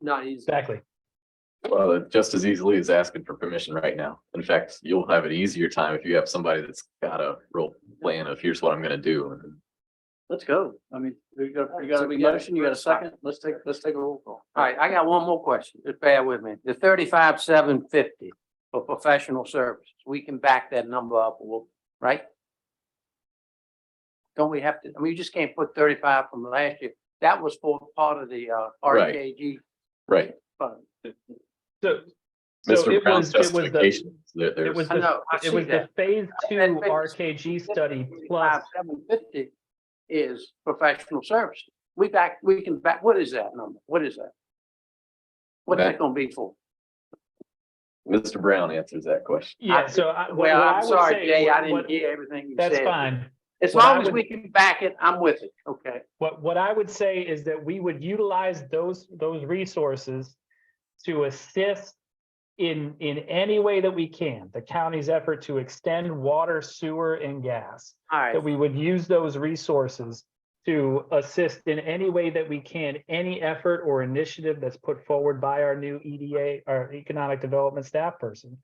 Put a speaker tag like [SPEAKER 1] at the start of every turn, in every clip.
[SPEAKER 1] not easy.
[SPEAKER 2] Exactly.
[SPEAKER 3] Well, it just as easily as asking for permission right now. In fact, you'll have an easier time if you have somebody that's got a real plan of here's what I'm gonna do. and
[SPEAKER 4] Let's go. I mean, you got, you
[SPEAKER 1] So
[SPEAKER 4] got a
[SPEAKER 1] we got a
[SPEAKER 4] motion, you got a
[SPEAKER 1] first time.
[SPEAKER 4] second? Let's take, let's take a roll call.
[SPEAKER 1] All right, I got one more question. Just bear with me. The thirty-five, seven fifty for professional services, we can back that number up, we'll- right? Don't we have to, I mean, you just can't put thirty-five from last year. That was for part of the uh
[SPEAKER 3] Right.
[SPEAKER 1] RKG
[SPEAKER 3] Right,
[SPEAKER 1] fund.
[SPEAKER 2] So. so
[SPEAKER 3] Mr.
[SPEAKER 2] it
[SPEAKER 3] Brown's
[SPEAKER 2] was it was the
[SPEAKER 3] justification, there,
[SPEAKER 2] it was
[SPEAKER 3] there's,
[SPEAKER 1] I know, I
[SPEAKER 2] It
[SPEAKER 1] see
[SPEAKER 2] was the
[SPEAKER 1] that.
[SPEAKER 2] phase two
[SPEAKER 1] And phase-
[SPEAKER 2] RKG study plus,
[SPEAKER 1] Thirty-five, seven fifty is professional services. We back, we can back, what is that number? What is that? What's
[SPEAKER 3] That-
[SPEAKER 1] that gonna be for?
[SPEAKER 3] Mr. Brown answers that question.
[SPEAKER 2] yeah, so I. what-
[SPEAKER 1] Well,
[SPEAKER 2] what I
[SPEAKER 1] I'm
[SPEAKER 2] would
[SPEAKER 1] sorry,
[SPEAKER 2] say-
[SPEAKER 1] Jay, I
[SPEAKER 2] what-
[SPEAKER 1] didn't
[SPEAKER 2] what-
[SPEAKER 1] hear everything you said.
[SPEAKER 2] That's fine.
[SPEAKER 1] As
[SPEAKER 2] What I
[SPEAKER 1] long as
[SPEAKER 2] would-
[SPEAKER 1] we can back it, I'm with it. Okay.
[SPEAKER 2] What, what I would say is that we would utilize those, those resources to assist in, in any way that we can, the county's effort to extend water, sewer, and gas.
[SPEAKER 1] All right.
[SPEAKER 2] That we would use those resources to assist in any way that we can, any effort or initiative that's put forward by our new EDA, our Economic Development Staff Person.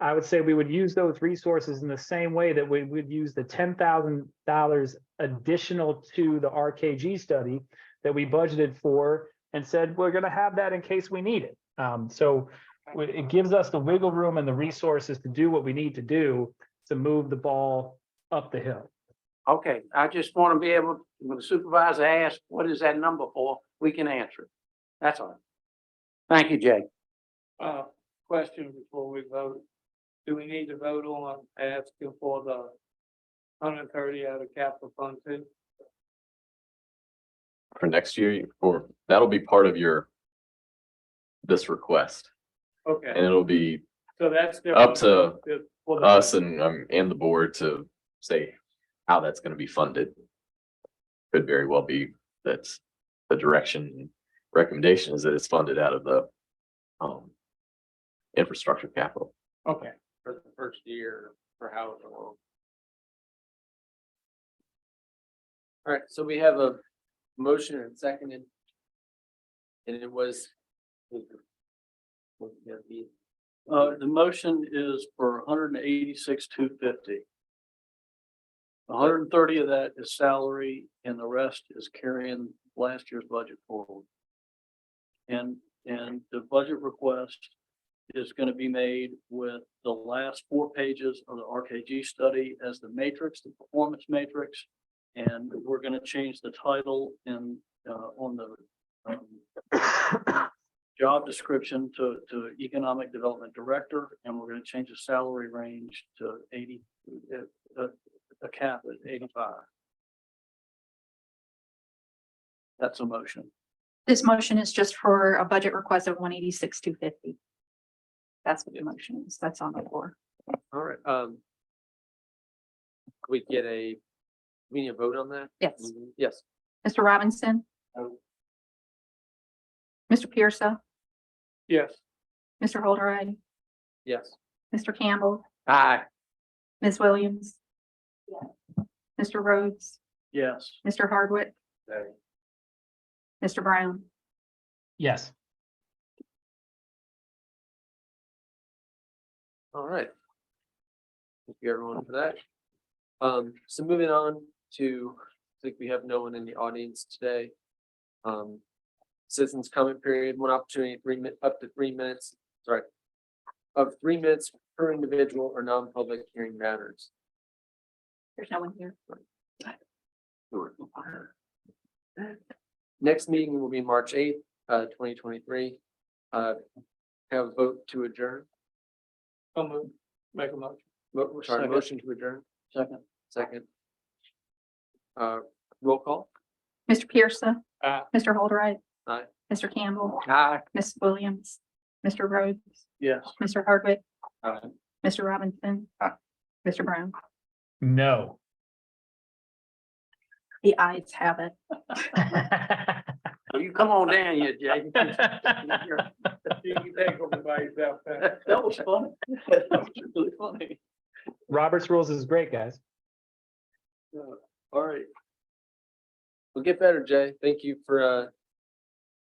[SPEAKER 2] I would say we would use those resources in the same way that we would use the ten thousand dollars additional to the RKG study that we budgeted for and said, we're gonna have that in case we need it. Um, so we- it gives us the wiggle room and the resources to do what we need to do to move the ball up the hill.
[SPEAKER 1] Okay. I just want to be able, when the supervisor asks, what is that number for? We can answer it. That's all. Thank you, Jay.
[SPEAKER 4] Uh, question before we vote. Do we need to vote on asking for the hundred and thirty out of capital fund too?
[SPEAKER 3] For next year, or that'll be part of your this request, and
[SPEAKER 4] Okay,
[SPEAKER 3] it'll be
[SPEAKER 4] so that's.
[SPEAKER 3] up to
[SPEAKER 4] for the-
[SPEAKER 3] us and, um, and the board to say how that's gonna be funded. Could very well be that's the direction and recommendation is that it's funded out of the, um, infrastructure capital.
[SPEAKER 4] Okay, for the first year for housing. All right, so we have a motion and seconded. And it was. Uh, the motion is for hundred and eighty-six, two fifty. hundred and thirty of that is salary and the rest is carrying last year's budget forward. And, and the budget request is gonna be made with the last four pages of the RKG study as the matrix, the performance matrix. And we're gonna change the title in, uh, on the, um, job description to, to Economic Development Director, and we're gonna change the salary range to eighty, uh, uh, a cap at eighty-five. That's a motion.
[SPEAKER 5] This motion is just for a budget request of one eighty-six, two fifty. That's what the motion is. That's on the floor.
[SPEAKER 1] All right. Um. We get a, we need a vote on that?
[SPEAKER 5] Yes.
[SPEAKER 1] Yes.
[SPEAKER 5] Mr. Robinson?
[SPEAKER 4] No.
[SPEAKER 5] Mr. Pierceau,
[SPEAKER 4] Yes.
[SPEAKER 5] Mr. Holdred,
[SPEAKER 1] Yes.
[SPEAKER 5] Mr. Campbell,
[SPEAKER 1] Aye.
[SPEAKER 5] Ms. Williams? Mr. Rhodes,
[SPEAKER 4] Yes.
[SPEAKER 5] Mr. Hardwick, Mr. Brown?
[SPEAKER 2] Yes.
[SPEAKER 1] All right. Thank you everyone for that. Um, so moving on to, I think we have no one in the audience today. Um, citizens comment period, one opportunity, three min, up to three minutes, sorry. Of three minutes per individual or non-public hearing matters.
[SPEAKER 5] There's no one here.
[SPEAKER 1] Next meeting will be March eighth, uh, twenty twenty-three. Uh, have a vote to adjourn,
[SPEAKER 4] I'll move, make a motion.
[SPEAKER 1] mo- sorry,
[SPEAKER 4] Second.
[SPEAKER 1] motion to adjourn,
[SPEAKER 4] Second.
[SPEAKER 1] second. Uh, roll call.
[SPEAKER 5] Mr. Pierceau,
[SPEAKER 4] Aye.
[SPEAKER 5] Mr. Holdred,
[SPEAKER 1] Aye.
[SPEAKER 5] Mr. Campbell,
[SPEAKER 1] Aye.
[SPEAKER 5] Ms. Williams, Mr. Rhodes,
[SPEAKER 4] Yes.
[SPEAKER 5] Mr. Hardwick,
[SPEAKER 1] Aye.
[SPEAKER 5] Mr. Robinson? Mr. Brown?
[SPEAKER 2] No.
[SPEAKER 5] The ayes have it.
[SPEAKER 1] Well, You come on down here, Jay.
[SPEAKER 4] That was funny. That was really funny.
[SPEAKER 2] Robert's rules is great, guys.
[SPEAKER 4] All right.
[SPEAKER 1] We'll get better, Jay. Thank you for uh